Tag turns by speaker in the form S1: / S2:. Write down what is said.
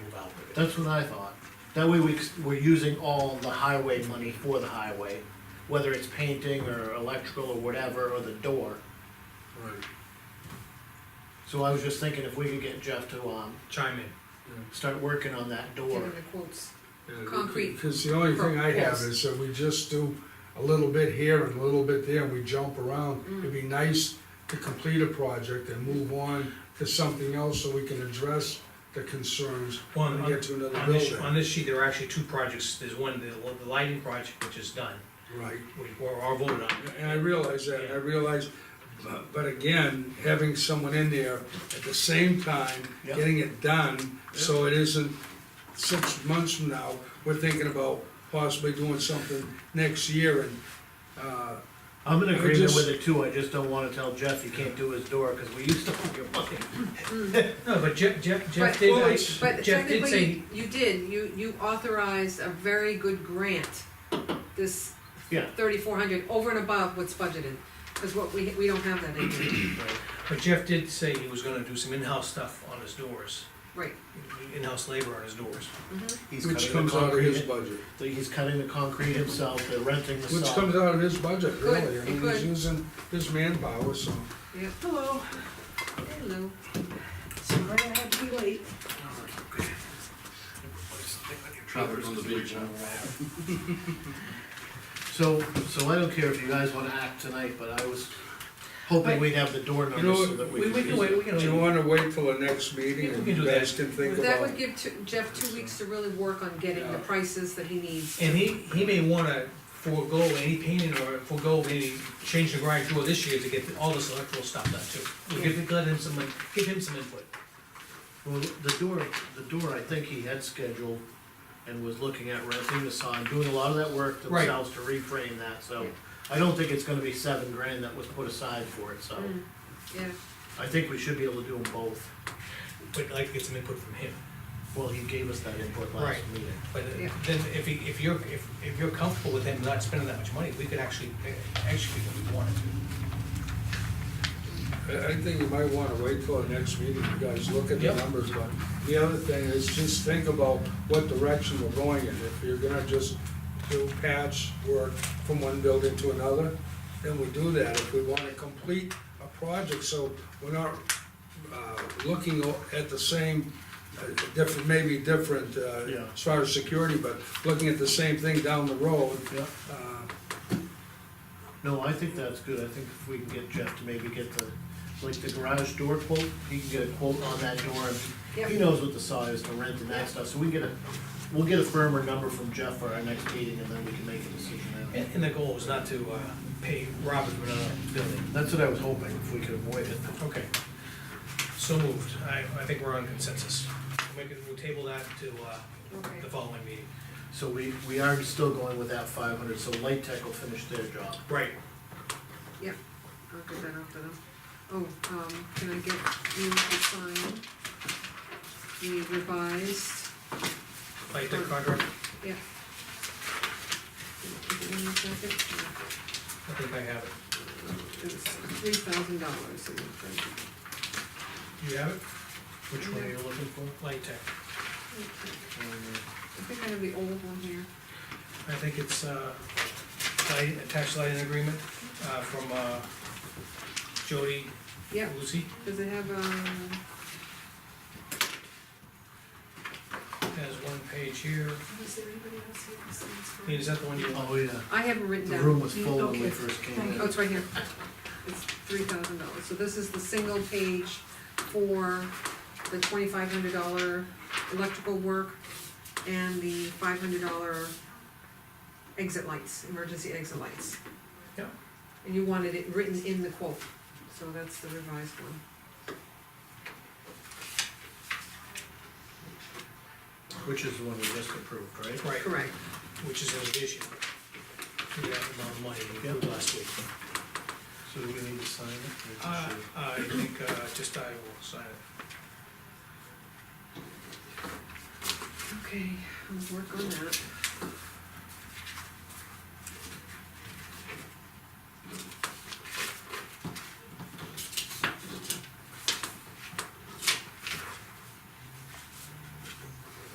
S1: That's what I thought. That way we, c- we're using all the highway money for the highway, whether it's painting or electrical or whatever, or the door.
S2: Right.
S1: So I was just thinking if we could get Jeff to, um,
S3: chime in.
S1: start working on that
S4: Give
S1: door.
S4: him the quotes.
S2: Yeah,
S4: Concrete.
S2: Cause the only thing I have
S4: Yes.
S2: is uh, that we just do a little bit here and a little bit there, and we jump around.
S4: Mm.
S2: It'd be nice to complete a project and move on to something else so we can address the concerns
S3: One,
S2: and
S3: on,
S2: get to another
S3: on this, on
S2: building.
S3: this sheet, there are actually two projects, there's one, the, the lighting project, which is done,
S2: Right,
S3: which we're all voted on.
S2: and I realize that, I realize, but, but again, having someone in there at the same time,
S1: Yeah.
S2: getting it done, so it isn't six months from now, we're thinking about possibly doing something next year and, uh,
S1: I'm in
S2: I
S1: agreement
S2: just-
S1: with it too, I just don't wanna tell Jeff he can't do his door, cause we used to own your money.
S3: No, but Jeff, Jeff,
S4: Right.
S3: Jeff did,
S2: Well,
S3: I-
S2: it's-
S4: But
S3: Jeff did say,
S4: technically, you did, you, you authorized a very good grant, this
S1: Yeah.
S4: thirty-four hundred, over and above what's budgeted. Cause what, we, we don't have that in here,
S3: but Jeff did say he was gonna do some in-house stuff on his doors,
S4: right. Mm-hmm.
S3: in-house labor on his doors.
S1: He's
S2: which
S1: cutting the
S2: comes out of his
S1: concrete-
S2: budget.
S1: He's cutting the concrete himself, they're renting the
S2: Which
S1: sub.
S2: comes out of his budget,
S4: Good,
S2: really, I mean,
S4: good.
S2: he's using his manpower, so.
S4: Yep,
S5: Hello,
S4: hello.
S5: sorry I had to be late.
S1: Travelers on the beach. So, so I don't care if you guys wanna act tonight, but I was hoping we'd have the door
S2: know,
S1: numbers so that we
S3: We,
S1: could.
S3: we can wait, we can
S2: Do you
S3: wait.
S2: wanna wait till the next meeting
S3: Yeah, we
S2: and
S3: can
S2: you
S3: do that.
S2: guys can think
S4: That would
S2: about?
S4: give two- Jeff two weeks to really work on getting
S2: Yeah.
S4: the prices that he needs.
S3: And he, he may wanna forego any painting or forego any change the garage door this year to get all this electrical stuff done too. We'll give, let him some, like, give him some input.
S1: Well, the door, the door, I think he had scheduled and was looking at renting the sign, doing a lot of that work
S3: Right.
S1: themselves to reframe that, so.
S4: Yeah.
S1: I don't think it's gonna be seven grand that was put aside for it, so
S3: Hmm.
S4: Mm, Yeah,
S1: I think we should be able to do them both.
S3: But I'd like to get some input from him.
S1: Well, he gave us that input last
S3: Right.
S1: meeting.
S3: But uh,
S4: Yeah.
S3: then if, he- if you're, if, if you're comfortable with him not spending that much money, we could actually uh, execute what we wanted to.
S2: I, I think you might wanna wait till the next meeting, you guys look at the
S3: Yep.
S2: numbers, but the other thing is just think about what direction we're going in. If you're gonna just do patch work from one building to another, then we do that. If we wanna complete a project, so we're not, uh, looking o- at the same, uh, different, maybe different,
S1: Yeah.
S2: uh, as far as security, but looking at the same thing down the road.
S1: Yeah.
S2: Uh,
S1: No, I think that's good, I think if we can get Jeff to maybe get the, like the garage door quote, he can get a quote on that door, and he
S4: Yep.
S1: knows what the size, the rent and that stuff, so we can get a, we'll get a firmer number from Jeff for our next meeting, and then we can make a decision then.
S3: And, and the goal was not to uh, pay Robert for another building.
S1: That's what I was hoping, if we could avoid it.
S3: Okay. So moved. I, I think we're on consensus. We'll make it- we'll table that to uh,
S4: Okay.
S3: the following meeting.
S1: So we, we are still going with that five hundred, so Light Tech will finish their job.
S3: Right.
S4: yep, I'll get that off to them. Oh, um, can I get you to sign the revised,
S3: Like the contract,
S4: yeah. Give me one second.
S3: I think I have it.
S4: It's three thousand dollars in the present.
S3: You have it?
S1: Which one are you looking for?
S3: Light Tech.
S4: I think I have the old one here.
S3: I think it's uh, light- attached lighting agreement uh, from uh, Jody
S4: Yeah,
S3: Lucy.
S4: does it have, um,
S3: Has one page here.
S5: Is there anybody else who has
S3: Ian,
S5: things
S3: Is that the one you want?
S1: Oh, yeah,
S4: I haven't written
S1: the
S4: down.
S1: room was full when we
S5: Okay.
S1: first came in.
S4: Oh, it's right here. It's three thousand dollars. So this is the single page for the twenty-five hundred dollar electrical work and the five hundred dollar exit lights, emergency exit lights.
S3: Yeah.
S4: And you wanted it written in the quote, so that's the revised one.
S1: Which is the one we just approved, right?
S3: Right.
S4: Correct.
S3: which is an addition to that amount of money we approved last week.
S1: So do we need to sign it?
S3: Uh, I think, uh, just I will sign it.
S4: Okay, I'll work on that.